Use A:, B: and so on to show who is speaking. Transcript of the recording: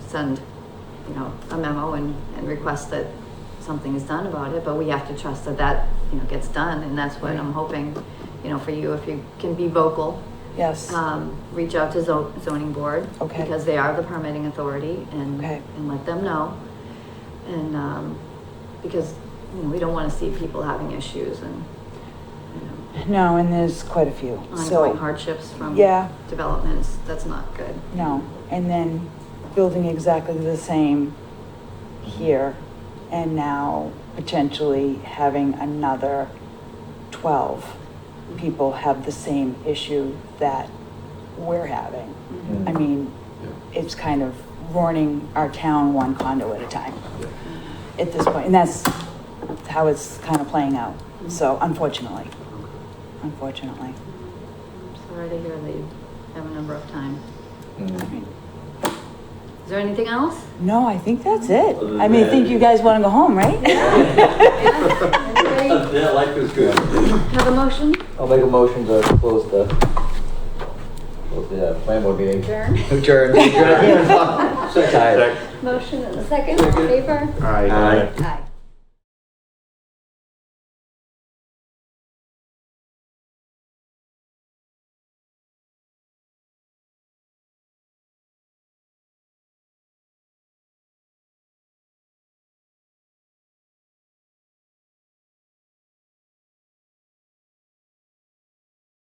A: send, you know, a memo and, and request that something is done about it, but we have to trust that that, you know, gets done, and that's what I'm hoping, you know, for you, if you can be vocal,
B: Yes.
A: um, reach out to zo- zoning board.
B: Okay.
A: Because they are the permitting authority and,
B: Okay.
A: and let them know. And, um, because, you know, we don't wanna see people having issues and, you know,
B: No, and there's quite a few.
A: ongoing
B: So,
A: hardships from
B: Yeah.
A: developments, that's not good.
B: no, and then building exactly the same here and now potentially having another 12 people have the same issue that we're having. I mean, it's kind of running our town one condo at a time at this point, and that's how it's kind of playing out. So unfortunately, unfortunately.
A: I'm Sorry to hear that you have a number of time. Is there anything else?
B: No, I think that's it.
C: Other
B: I mean, I
C: than
B: think
C: that-
B: you guys want to go home, right?
A: Anybody
C: Yeah, life is good.
A: Have a motion?
C: I'll make a motion to close the, close the uh, plan board meeting.
A: Adjourn.
C: Adjourn. Adjourn. So tired.
A: Motion and a second, all in favor?
D: All right.
C: Aye.
A: Aye.